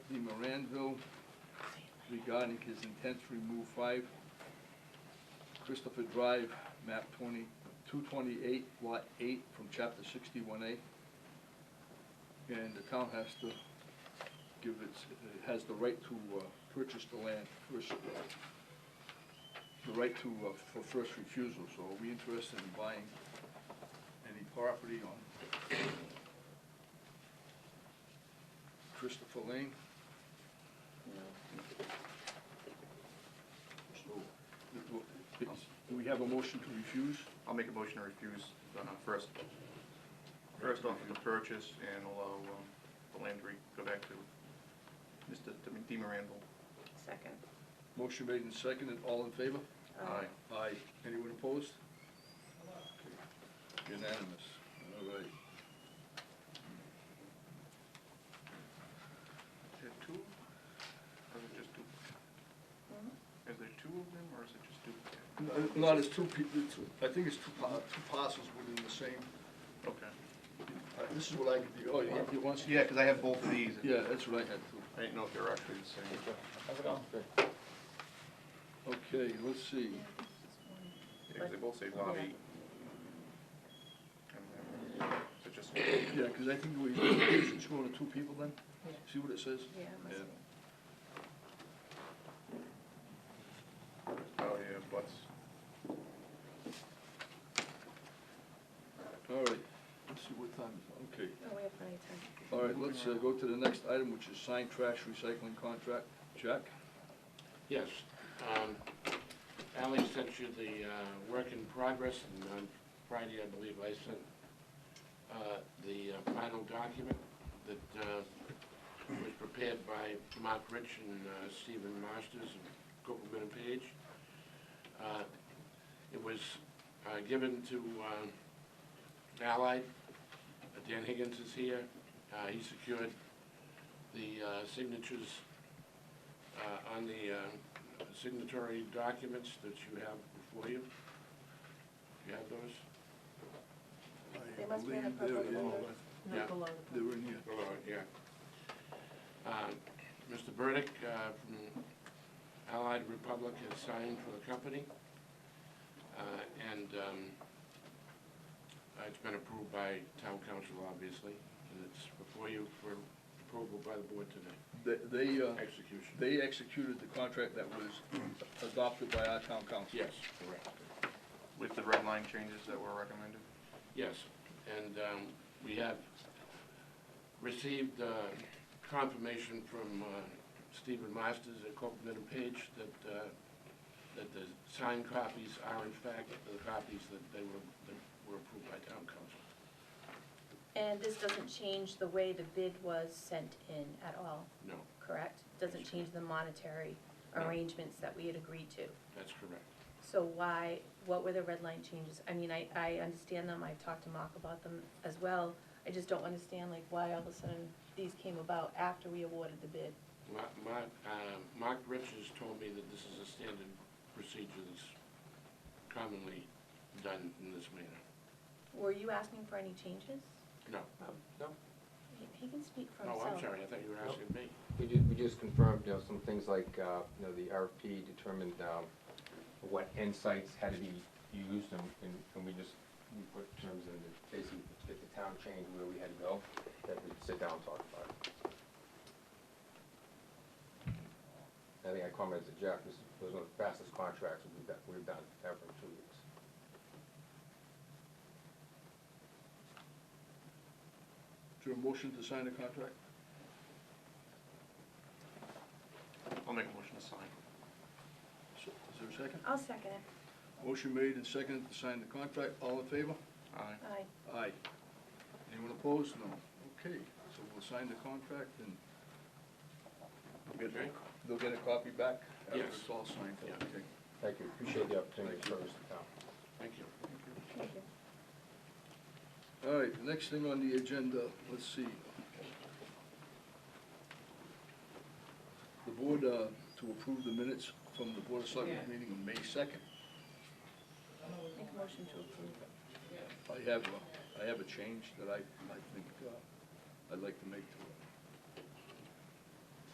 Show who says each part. Speaker 1: Glanville regarding his intent to remove five Christopher Drive, map twenty, two twenty-eight, lot eight, from chapter sixty-one A. And the town has to give its, it has the right to, uh, purchase the land first, uh, the right to, uh, for first refusal, so are we interested in buying any property on Christopher Lane? So, do- do- Do we have a motion to refuse?
Speaker 2: I'll make a motion to refuse, uh, first, first off the purchase and allow, um, the land to re- go back to Mr. Di Miranda.
Speaker 3: Second.
Speaker 1: Motion made and seconded, all in favor?
Speaker 3: Aye.
Speaker 1: Aye. Anyone opposed? Okay. Unanimous, all right.
Speaker 2: Is it two? Or is it just two? Is there two of them, or is it just two?
Speaker 1: N- Not as two people, I think it's two pa- two parcels within the same,
Speaker 2: Okay.
Speaker 1: uh, this is what I could do, oh, you you want?
Speaker 2: Yeah, because I have both of these. and
Speaker 1: Yeah, that's what I had too.
Speaker 2: I didn't know if they were actually the same.
Speaker 1: Okay, let's see,
Speaker 2: Yeah, 'cause they both say lot eight. And then, So just,
Speaker 1: yeah, because I think we, it's going to two people then?
Speaker 3: Yeah.
Speaker 1: See what it says?
Speaker 3: Yeah, it must
Speaker 1: Yeah.
Speaker 3: be.
Speaker 2: oh, yeah, butts.
Speaker 1: All right, let's see what time is it, okay.
Speaker 3: No, Oh, we have plenty of time.
Speaker 1: All right, let's uh, go to the next item, which is signed trash recycling contract. Jack?
Speaker 4: Yes. um, Ally sent you the uh, work in progress, and on Friday, I believe, I sent uh, the uh, final document that uh, was prepared by Mark Rich and uh, Stephen Masters and Copeland and Page. Uh, It was uh, given to uh, Allied. Dan Higgins is here. Uh, He secured the uh, signatures uh, on the uh, signatory documents that you have before you. You have those?
Speaker 3: They must be in a
Speaker 1: I believe
Speaker 3: purple
Speaker 1: they're in-
Speaker 3: folder.
Speaker 4: Yeah.
Speaker 5: Not below the.
Speaker 1: They were in here.
Speaker 4: Oh, yeah. Uh, Mr. Burdick uh, from Allied Republic has signed for the company, uh, and um, uh, it's been approved by town council, obviously, and it's before you for approval by the board tonight,
Speaker 1: They- They, uh,
Speaker 4: execution.
Speaker 1: they executed the contract that was adopted by our town council.
Speaker 4: Yes, correct.
Speaker 2: With the red line changes that were recommended?
Speaker 4: Yes, and um, we have received uh, confirmation from uh, Stephen Masters at Copeland and Page that, uh, that the signed copies are in fact the copies that they were, that were approved by town council.
Speaker 3: And this doesn't change the way the bid was sent in at all,
Speaker 4: No,
Speaker 3: correct? Doesn't change the monetary
Speaker 4: No.
Speaker 3: arrangements that we had agreed to.
Speaker 4: that's correct.
Speaker 3: So why, what were the red line changes? I mean, I, I understand them, I've talked to Mark about them as well. I just don't understand like why all of a sudden these came about after we awarded the bid.
Speaker 4: Ma- Mark, uh, Mark Richards told me that this is a standard procedure that's commonly done in this manner.
Speaker 3: Were you asking for any changes?
Speaker 4: No,
Speaker 6: No,
Speaker 3: He- He can speak for
Speaker 4: oh,
Speaker 3: himself.
Speaker 4: I'm sorry, I thought you were asking me.
Speaker 6: we just, we just confirmed, you know, some things like, uh, you know, the RFP determined, um, what end sites had to be used, and, and, and we just, we put terms in, that basically, if the town changed where we had to go, that we'd sit down and talk about it. I think I commented to Jeff, this was one of the fastest contracts we've done, we've done ever in two weeks.
Speaker 1: Is there a motion to sign the contract?
Speaker 2: I'll make a motion to sign.
Speaker 1: So, Is there a second?
Speaker 3: I'll second it.
Speaker 1: Motion made and seconded to sign the contract. All in favor?
Speaker 2: Aye.
Speaker 3: Aye.
Speaker 1: Aye. Anyone opposed? No. Okay, so we'll sign the contract and they'll get-
Speaker 4: Okay.
Speaker 1: they'll get a copy back after
Speaker 4: Yes.
Speaker 1: it's all signed.
Speaker 4: Yeah.
Speaker 1: Okay.
Speaker 6: Thank you, appreciate the opportunity to service the town.
Speaker 4: Thank you.
Speaker 3: Thank you.
Speaker 1: All right, the next thing on the agenda, let's see. The board, uh, to approve the minutes from the Board of Selectmen's meeting on May second.
Speaker 3: Make a motion to approve.
Speaker 1: I have, a- I have a change that I, I think, uh, I'd like to make to